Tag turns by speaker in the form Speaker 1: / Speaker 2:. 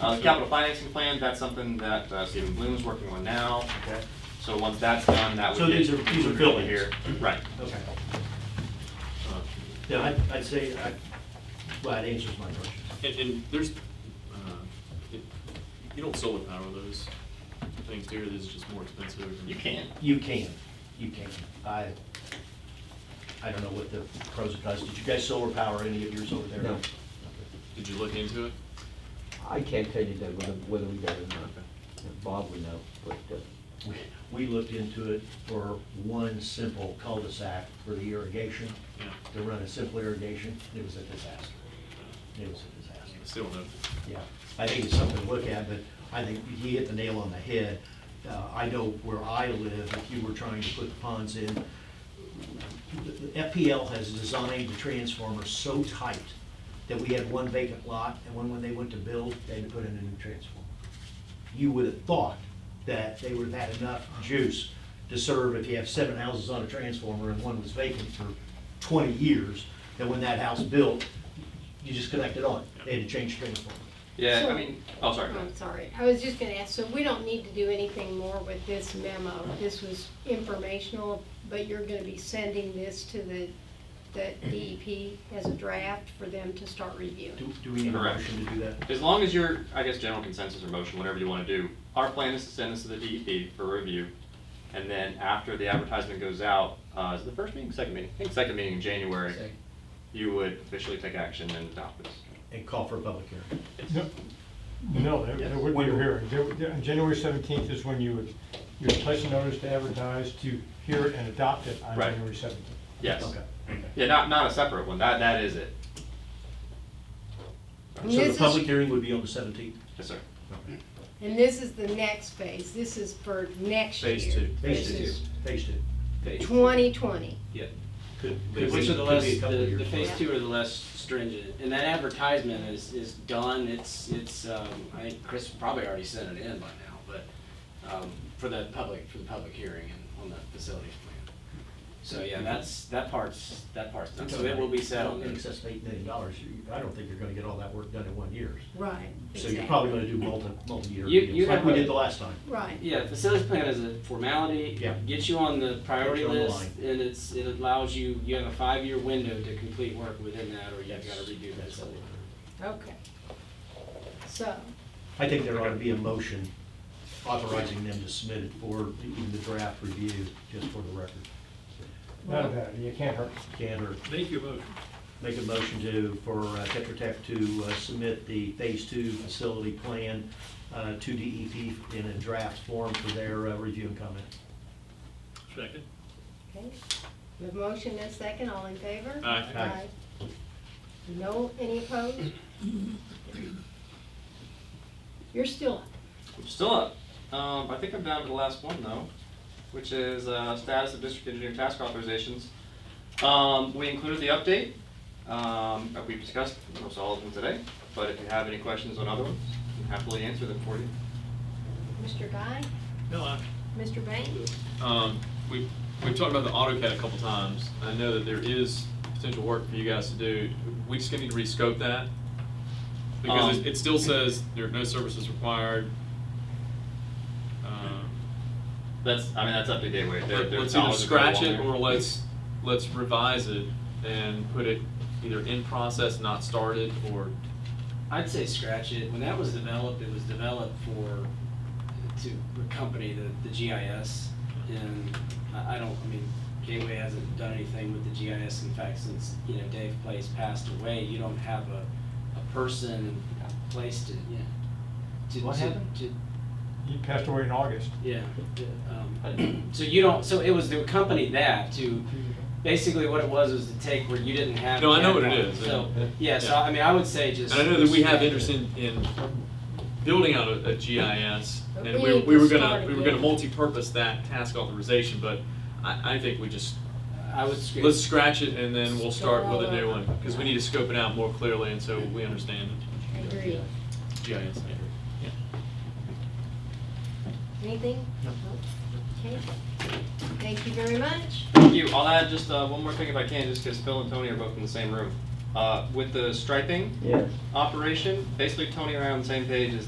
Speaker 1: Uh, the capital financing plan, that's something that uh, Stephen Bloom's working on now.
Speaker 2: Okay.
Speaker 1: So once that's done, that would
Speaker 2: So
Speaker 1: get.
Speaker 2: these are- these are
Speaker 1: included
Speaker 2: buildings.
Speaker 1: here. Right.
Speaker 2: Okay.
Speaker 3: Uh,
Speaker 2: Yeah, I'd, I'd say, I, well, it answers my question.
Speaker 3: And, and there's, uh, it- you don't solar power those things here, this is just more expensive. and-
Speaker 1: You can.
Speaker 2: You can, you can. I, I don't know what the pros and cons, did you guys solar power any of yours over there?
Speaker 4: No.
Speaker 3: Did you look into it?
Speaker 4: I can't tell you that whether, whether we got it or not. Bob would know, but, uh,
Speaker 2: We- We looked into it for one simple cul-de-sac for the irrigation,
Speaker 3: Yeah,
Speaker 2: to run a simple irrigation. It was a disaster. It was a disaster.
Speaker 3: I still don't know.
Speaker 2: Yeah, I think it's something to look at, but I think he hit the nail on the head. Uh, I know where I live, if you were trying to put the ponds in, the- the FPL has designed the transformer so tight that we had one vacant lot, and when, when they went to build, they had to put in a new transformer. You would have thought that they would have had enough juice to serve if you have seven houses on a transformer and one was vacant for twenty years, that when that house built, you just connected on, they had to change the transformer.
Speaker 1: Yeah, I
Speaker 5: So-
Speaker 1: mean, oh, sorry. go
Speaker 5: Oh,
Speaker 1: ahead.
Speaker 5: I'm sorry. I was just gonna ask, so we don't need to do anything more with this memo? This was informational, but you're gonna be sending this to the, the DEP as a draft for them to start reviewing?
Speaker 2: Do, do we need a
Speaker 1: Correct.
Speaker 2: motion to do that?
Speaker 1: As long as your, I guess, general consensus or motion, whatever you want to do, our plan is to send this to the DEP for review. And then after the advertisement goes out, uh, is it the first meeting, second meeting? I think second meeting in January, you would officially take action and adopt this.
Speaker 2: And call for a public hearing.
Speaker 6: No, No, there- there would be a
Speaker 2: Yes.
Speaker 6: hearing. There would- there- January 17th is when you would, you would place a notice to advertise to hear it and adopt it on
Speaker 1: Right.
Speaker 6: January 17th.
Speaker 1: Yes.
Speaker 2: Okay.
Speaker 1: Yeah, not, not a separate one. That, that is it.
Speaker 5: And
Speaker 2: So the
Speaker 5: this is-
Speaker 2: public hearing would be on the seventeenth?
Speaker 1: Yes, sir.
Speaker 5: And this is the next phase. This is for next year.
Speaker 3: Phase two.
Speaker 2: Phase
Speaker 5: This
Speaker 2: two.
Speaker 5: is
Speaker 2: Phase two.
Speaker 5: twenty twenty.
Speaker 2: Could- could
Speaker 7: Which
Speaker 2: be-
Speaker 7: are the
Speaker 2: could be
Speaker 7: less,
Speaker 2: a couple of
Speaker 7: the,
Speaker 2: years.
Speaker 7: the phase two are the less stringent, and that advertisement is, is done, it's, it's, um, I think Chris probably already sent it in by now, but, um, for the public, for the public hearing and on the facilities plan. So, yeah, that's, that part's, that part's done, so it will be
Speaker 2: I
Speaker 7: set
Speaker 2: don't
Speaker 7: on
Speaker 2: think
Speaker 7: the,
Speaker 2: Excess eight million dollars, You- I don't think you're gonna get all that work done in one year.
Speaker 5: Right,
Speaker 2: So you're
Speaker 5: exactly.
Speaker 2: probably gonna do multi, multi-year
Speaker 7: You- you
Speaker 2: deals, like
Speaker 7: have
Speaker 2: we
Speaker 7: a-
Speaker 2: did the last time.
Speaker 5: Right.
Speaker 7: yeah, facilities plan is a formality.
Speaker 2: Yeah.
Speaker 7: Gets you on the priority
Speaker 2: Gets you on the
Speaker 7: list, and it's, it allows you, you have a five-year window to complete work within that, or you've gotta redo that. facility.
Speaker 5: Okay. So,
Speaker 2: I think there ought to be a motion authorizing them to submit it for even the draft review, just for the record.
Speaker 6: None of that, you can't hurt.
Speaker 2: Can or
Speaker 3: Make your vote.
Speaker 2: make a motion to, for uh, Tetra Tech to uh, submit the Phase Two facility plan uh, to DEP in a draft form for their uh, review and comment.
Speaker 3: Second.
Speaker 5: okay, the motion is second, all in favor?
Speaker 3: Aye.
Speaker 2: Aye.
Speaker 5: Aye. No, any opposed? You're still up.
Speaker 1: I'm still up. Um, I think I'm down to the last one though, which is, uh, status of district engineering task authorizations. Um, we included the update, um, that we discussed almost all of them today, but if you have any questions on other ones, I'm happily answer them for you.
Speaker 5: Mr. Guy,
Speaker 3: No, I.
Speaker 5: Mr. Bain,
Speaker 3: Um, we've, we've talked about the AutoCAD a couple times. I know that there is potential work for you guys to do. We just gonna need to rescope that. Because
Speaker 1: Um,
Speaker 3: it, it still says there are no services required. Um,
Speaker 1: That's, I mean, that's up to Gateway. Their- their
Speaker 3: Let's either
Speaker 1: knowledge of how
Speaker 3: scratch
Speaker 1: long
Speaker 3: it
Speaker 1: they're-
Speaker 3: or let's, let's revise it and put it either in process, not started, or
Speaker 7: I'd say scratch it. When that was developed, it was developed for, to accompany the, the GIS. And I, I don't, I mean, Gateway hasn't done anything with the GIS. In fact, since, you know, Dave Place passed away, you don't have a, a person placed to, yeah. to-
Speaker 2: What
Speaker 7: to-
Speaker 2: happened?
Speaker 7: To,
Speaker 6: He passed away in August.
Speaker 7: yeah. um, So you don't, so it was to accompany that, to basically what it was, was to take where you didn't have.
Speaker 3: No, I know what it
Speaker 7: catalog.
Speaker 3: is.
Speaker 7: So,
Speaker 3: Yeah.
Speaker 7: yeah, so I mean, I would say just.
Speaker 3: And I know that we have
Speaker 7: scratch it.
Speaker 3: interest in, in building out a, a GIS,
Speaker 5: But
Speaker 3: and
Speaker 5: we
Speaker 3: we,
Speaker 5: need
Speaker 3: we
Speaker 5: to
Speaker 3: were
Speaker 5: start
Speaker 3: gonna, we were gonna
Speaker 5: again.
Speaker 3: multi-purpose that task authorization, but I, I think we just,
Speaker 7: I would scratch.
Speaker 3: let's scratch it and then we'll start with a new one, because we need to scope it out more clearly, and so we understand
Speaker 5: agree.
Speaker 3: GIS. Yeah.
Speaker 5: Anything?
Speaker 2: No.
Speaker 5: Okay, thank you very much.
Speaker 1: Thank you. I'll add just uh, one more thing if I can, just because Phil and Tony are both in the same room. Uh, With the striping
Speaker 4: yes.
Speaker 1: operation, basically Tony and I are on the same page as